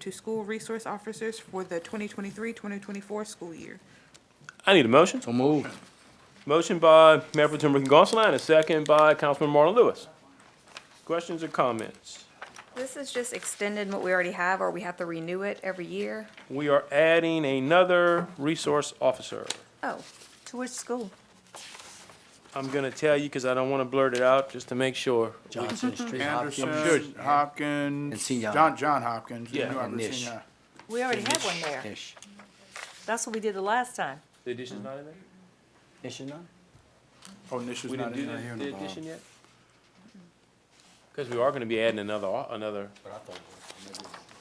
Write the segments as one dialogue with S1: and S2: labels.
S1: to school resource officers for the 2023-2024 school year.
S2: I need a motion.
S3: So moved.
S2: Motion by Mayor Pro Tem Ricky Gonsalas and a second by Councilman Marlon Lewis. Questions or comments?
S4: This is just extending what we already have, or we have to renew it every year?
S2: We are adding another resource officer.
S4: Oh, to which school?
S2: I'm gonna tell you because I don't want to blurt it out just to make sure.
S3: Johnson Street, Hopkins.
S5: Anderson, Hopkins,
S3: And Senior.
S5: John, John Hopkins.
S2: Yeah.
S5: New Albert
S3: And Nish.
S5: Senior.
S6: We already have one there.
S3: Ish.
S6: That's what we did the last time.
S2: The addition's not in there?
S3: Ish is not?
S5: Oh, Nish is
S2: We
S5: not
S2: didn't
S5: in
S2: do
S5: there.
S2: the, the addition yet? Because we are gonna be adding another, au- another.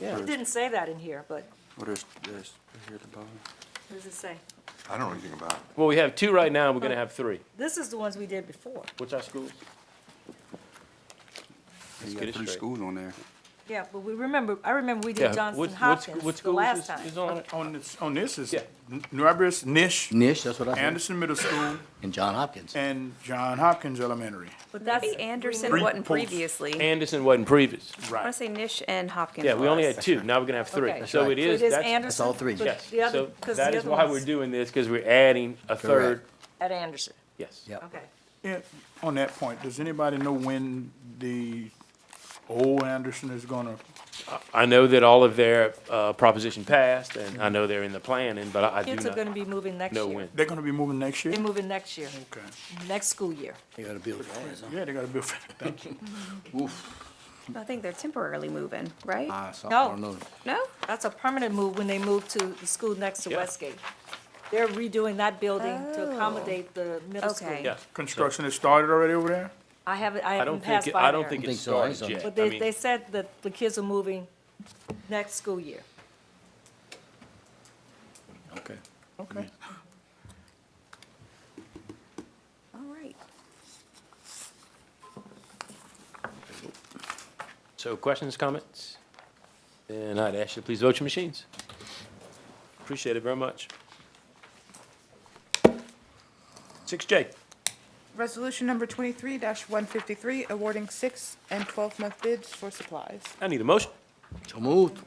S6: It didn't say that in here, but
S3: What is this, right here at the bottom?
S6: what does it say?
S7: I don't know anything about it.
S2: Well, we have two right now, we're gonna have three.
S6: This is the ones we did before.
S2: Which our schools?
S3: You
S2: get
S3: got
S2: it
S3: three
S2: straight.
S3: schools on there.
S6: Yeah, but we remember, I remember we
S2: Yeah.
S6: did Johnson
S2: What- what sc- what
S6: Hopkins the
S2: schools
S6: last
S2: is-
S6: time.
S2: Is on it?
S5: On this, on this is
S2: Yeah.
S5: N- New Albert, Nish,
S3: Nish, that's what I said,
S5: Anderson Middle School,
S3: and John Hopkins.
S5: and John Hopkins Elementary.
S6: But that's,
S4: Maybe Anderson
S5: Three
S4: wasn't
S5: pools.
S4: previously.
S2: Anderson wasn't previous.
S4: I want to say Nish and Hopkins
S2: Yeah, we only
S4: was.
S2: had two, now we're gonna have three.
S6: Okay.
S2: So it
S3: right.
S2: is,
S6: so it is
S2: that's,
S6: Anderson.
S3: all three.
S6: but
S2: yes.
S6: the other-
S2: So
S6: 'cause the
S2: that is
S6: other
S2: why we're
S6: one's
S2: doing this, because we're adding a third,
S6: At Anderson,
S2: yes.
S3: Yep.
S6: okay.
S5: Yeah, on that point, does anybody know when the old Anderson is gonna,
S2: I know that all of their, uh, proposition passed, and I know they're in the planning, but I I do
S6: Kids are gonna
S2: not
S6: be moving next year.
S2: know when.
S5: they're gonna be moving next year?
S6: They're moving next year,
S5: Okay.
S6: next school year.
S3: You gotta build that, huh?
S5: Yeah, they gotta be, thank you.
S4: I think they're temporarily moving,
S2: Uh,
S4: right?
S3: Ah, so I
S6: No.
S3: don't know.
S4: No?
S6: That's a permanent move when they move to the school next to
S2: Yeah.
S6: Westgate. They're redoing that building to
S4: Oh.
S6: accommodate the middle school.
S4: Okay.
S2: Yeah.
S5: Construction has started already over there?
S6: I haven't, I
S2: I
S6: haven't
S2: don't think,
S6: passed
S2: it-
S6: by there.
S2: I don't think
S3: there.
S2: it
S3: I don't think
S2: started
S3: so,
S2: yet.
S6: But
S2: I
S6: they,
S2: mean-
S6: they said that the kids are moving next school year.
S3: Okay.
S4: All
S5: Okay.
S4: right.
S2: So questions, comments? And I'd ask you to please vote your machines. Appreciate it very much. Six J,
S1: Resolution number 23-153, awarding six and 12-month bids for supplies.
S2: I need a motion.
S3: So moved.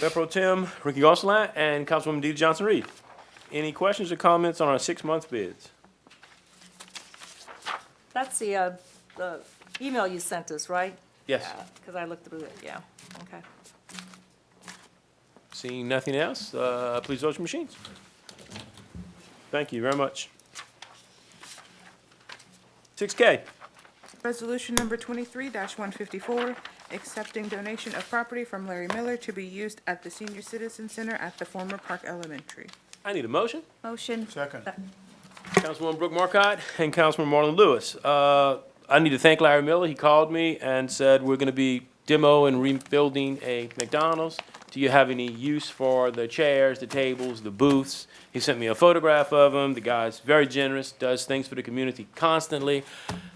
S2: Mayor Pro Tim Ricky Gonsalas and Councilwoman DeeDee Johnson-Reed. Any questions or comments on our six-month
S6: Uh,
S2: bids?
S6: That's the, uh, the email you sent us, right?
S2: Yes.
S6: Because I looked through it, yeah, okay.
S2: Seeing nothing else, uh, please vote your machines. Thank you very much. Six K,
S1: Resolution number twenty-three one fifty-four, accepting donation of property from Larry Miller to be used at the Senior Citizen Center at the former Park Elementary.
S2: I need a motion.
S4: Motion.
S5: Second.
S2: Councilwoman Brooke Markcott and Councilman Marlon Lewis. Uh, I need to thank Larry Miller. He called me and said, we're gonna be demo and rebuilding a McDonald's. Do you have any use for the chairs, the tables, the booths? He sent me a photograph of them. The guy's very generous, does things for the community constantly.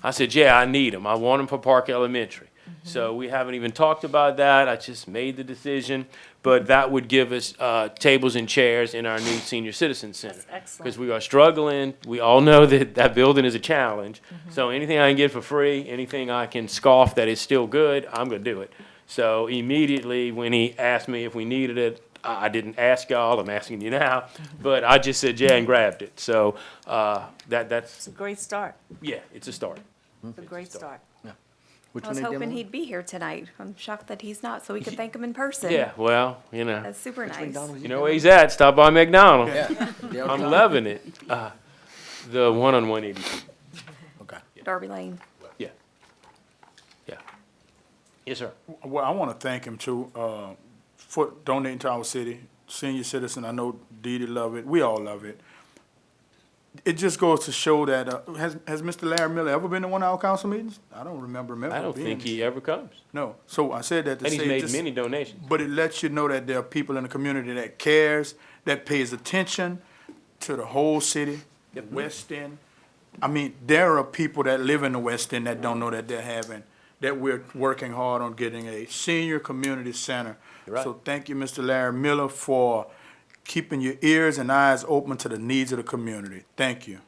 S2: I said, yeah, I need them. I want them for Park Elementary.
S6: Mm-hmm.
S2: So we haven't even talked about that. I just made the decision. But that would give us, uh, tables and chairs in our new senior citizen center.
S6: That's excellent.
S2: 'Cause we are struggling. We all know that that building is a challenge. So anything I can get for free, anything I can scoff that is still good, I'm gonna do it. So immediately when he asked me if we needed it, I I didn't ask y'all. I'm asking you now, but I just said yeah and grabbed it. So uh, that that's
S6: It's a great start,
S2: yeah, it's a start.
S6: it's a great start.
S3: Which
S4: I
S3: one
S4: was
S3: they
S4: hoping
S3: demoing?
S4: he'd be here tonight. I'm shocked that he's not, so we could thank him in person.
S2: Yeah, well, you know,
S4: That's super nice.
S3: McDonald's
S2: you know where he's at. Stop by McDonald's.
S3: demoing? Yeah.
S2: I'm loving it. Uh, the one on one eighty.
S3: Okay.
S4: Darby Lane.
S2: Yeah. Yeah. Yes, sir.
S5: Well, I want to thank him too, uh, for donating to our city, senior citizen. I know Dee Dee love it. We all love it. It just goes to show that, uh, has, has Mr. Larry Miller ever been to one of our council meetings? I don't remember him ever
S2: I don't
S5: being.
S2: think he ever comes.
S5: No. So I said that to
S2: And
S5: say.
S2: he's made
S5: just-
S2: many donations.
S5: But it lets you know that there are people in the community that cares, that pays attention to the whole city, the
S2: Mm-hmm.
S5: West End. I mean, there are people that live in the West End that don't know that they're having, that we're working hard on getting a senior community center.
S2: You're right.
S5: So thank you, Mr. Larry Miller, for keeping your ears and eyes open to the needs of the community. Thank you.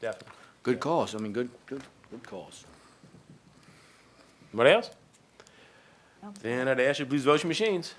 S2: Definitely.
S3: Good cause, I mean, good, good, good cause.
S2: What else? Then I'd ask you to please vote your machines.